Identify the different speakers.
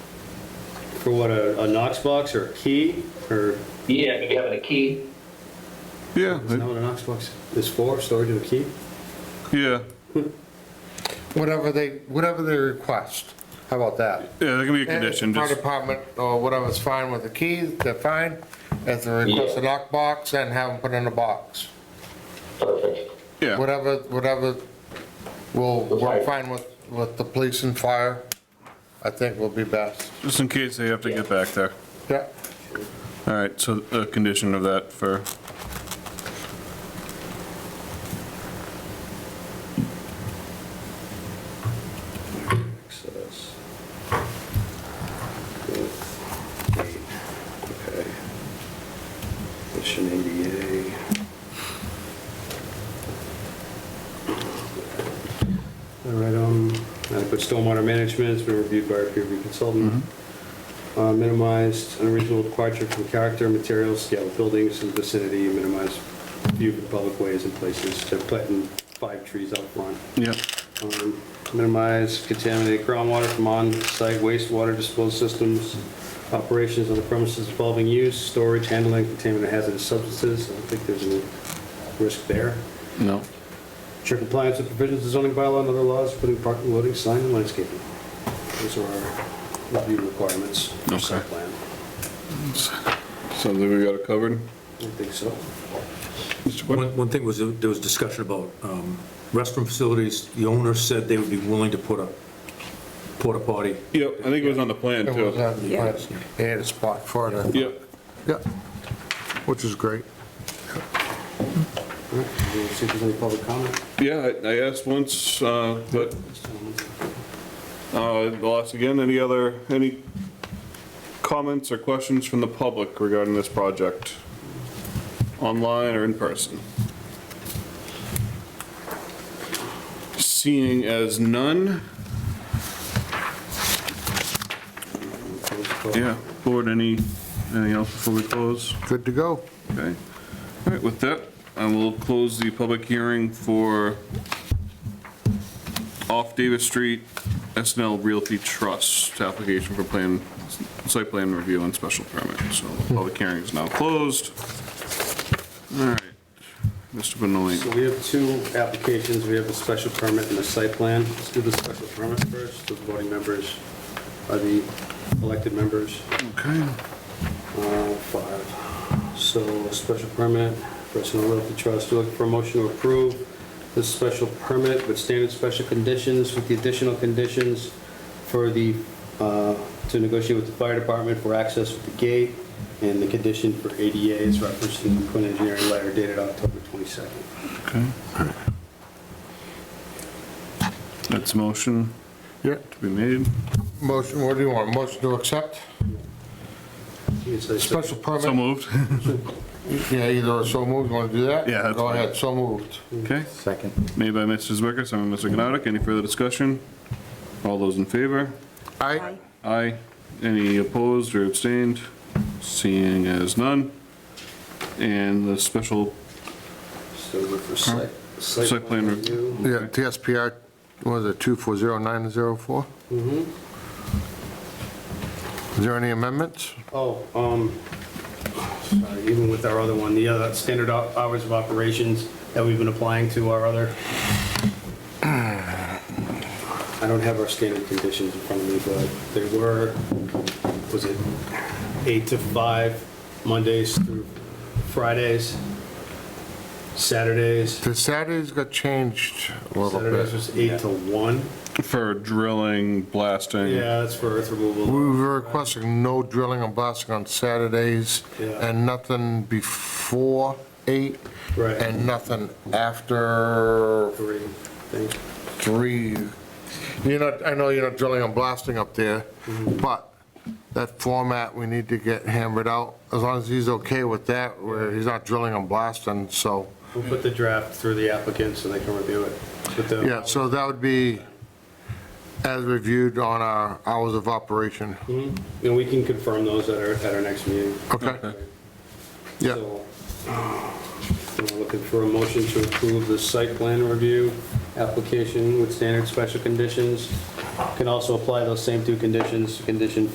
Speaker 1: For what, a, a Knox box or a key, or,
Speaker 2: Yeah, maybe having a key.
Speaker 3: Yeah,
Speaker 1: is that what a Knox box is for, storage of a key?
Speaker 3: yeah.
Speaker 4: Whatever they, whatever they request, how about that?
Speaker 3: Yeah, there can be a condition,
Speaker 4: If Fire
Speaker 3: just,
Speaker 4: department or whatever's fine with the keys, they're fine. If they request a lock box, then have them put in a box.
Speaker 2: Perfect.
Speaker 3: yeah,
Speaker 4: Whatever, whatever will work fine with, with the police and fire, I think will be best.
Speaker 3: just in case they have to get back there.
Speaker 4: Yeah,
Speaker 3: All right, so a condition of that for,
Speaker 1: Access. Okay. Mission ADA. All right, um, adequate stormwater management has been reviewed by our peer review consultant. Uh, Minimized unreasonable departure from character, materials, scale of buildings in the vicinity, minimize view of public ways and places, so planting five trees out front
Speaker 3: yeah,
Speaker 1: um, minimize contaminated groundwater from on-site wastewater disposal systems, operations on the premises involving use, storage, handling, contaminant hazardous substances. I don't think there's any risk there.
Speaker 3: no.
Speaker 1: Ensure compliance with provisions of zoning bylaw and other laws, including parking, loading, sign, and landscaping. Those are our review requirements for site
Speaker 3: Okay.
Speaker 1: plan.
Speaker 3: Sounds like we got it covered.
Speaker 1: I think so.
Speaker 3: Mr. Quinn?
Speaker 5: One, one thing was, there was discussion about um, restroom facilities. The owner said they would be willing to put a porta potty.
Speaker 3: Yep, I think it was on the plan
Speaker 4: it was, uh,
Speaker 3: too.
Speaker 4: on the plan. they had a spot for it.
Speaker 3: Yep,
Speaker 4: Yeah, which is great.
Speaker 1: All right, we'll see if there's any public comment.
Speaker 3: yeah, I- I asked once, uh, but Uh, I'll ask again, any other, any comments or questions from the public regarding this project? Online or in person? Seeing as none, yeah, board, any, anything else before we close?
Speaker 4: Good to go.
Speaker 3: Okay. All right, with that, I will close the public hearing for off Davis Street, SNL Realty Trust, application for plan, site plan review and special permit. So the public hearing is now closed. All right, Mr.
Speaker 1: So
Speaker 3: Benoit.
Speaker 1: we have two applications, we have a special permit and a site plan. Let's do the special permit first, the voting members are the elected members,
Speaker 3: Okay,
Speaker 1: uh, five. So special permit, personal realty trust, We're looking for a motion to approve this special permit with standard special conditions, with the additional conditions for the, uh, to negotiate with the fire department for access with the gate, and the condition for ADA is referenced in the Quinn Engineering letter dated October 22nd.
Speaker 3: okay. That's a motion
Speaker 4: Yeah.
Speaker 3: to be made.
Speaker 4: Motion, what do you want? Motion to accept?
Speaker 1: It's a
Speaker 4: Special permit?
Speaker 3: So moved.
Speaker 4: Yeah, either so moved, want to do that?
Speaker 3: Yeah, that's
Speaker 4: Go
Speaker 3: fine.
Speaker 4: ahead, so moved.
Speaker 3: Okay.
Speaker 6: Second.
Speaker 3: Made by Mr. Zwicker, second by Mr. Gnotik. Any further discussion? All those in favor?
Speaker 4: Aye.
Speaker 3: Aye. Any opposed or abstained? Seeing as none. And the special,
Speaker 1: So we're for site.
Speaker 3: Site plan review.
Speaker 4: Yeah, TSPR, what is it, 240904? Mm-hmm. Is there any amendments?
Speaker 1: Oh, um, sorry, even with our other one, the other standard op- hours of operations that we've been applying to our other. I don't have our standard conditions in front of me, but they were, was it eight to five, Mondays through Fridays, Saturdays?
Speaker 4: The Saturdays got changed a little
Speaker 1: Saturdays
Speaker 4: bit.
Speaker 1: was eight to one.
Speaker 3: for drilling, blasting.
Speaker 1: Yeah, that's for earth removal.
Speaker 4: We were requesting no drilling and blasting on Saturdays,
Speaker 1: Yeah.
Speaker 4: and nothing before eight,
Speaker 1: Right.
Speaker 4: and nothing after
Speaker 1: Three things.
Speaker 4: three. You're not, I know you're not drilling and blasting up there, but that format, we need to get hammered out. As long as he's okay with that, where he's not drilling and blasting, so,
Speaker 1: We'll put the draft through the applicants so they can review it. But the-
Speaker 4: yeah, so that would be as reviewed on our hours of operation.
Speaker 1: And we can confirm those at our, at our next meeting.
Speaker 4: Okay? Yeah.
Speaker 1: So, uh, We're looking for a motion to approve the site plan review application with standard special conditions. Can also apply those same two conditions, condition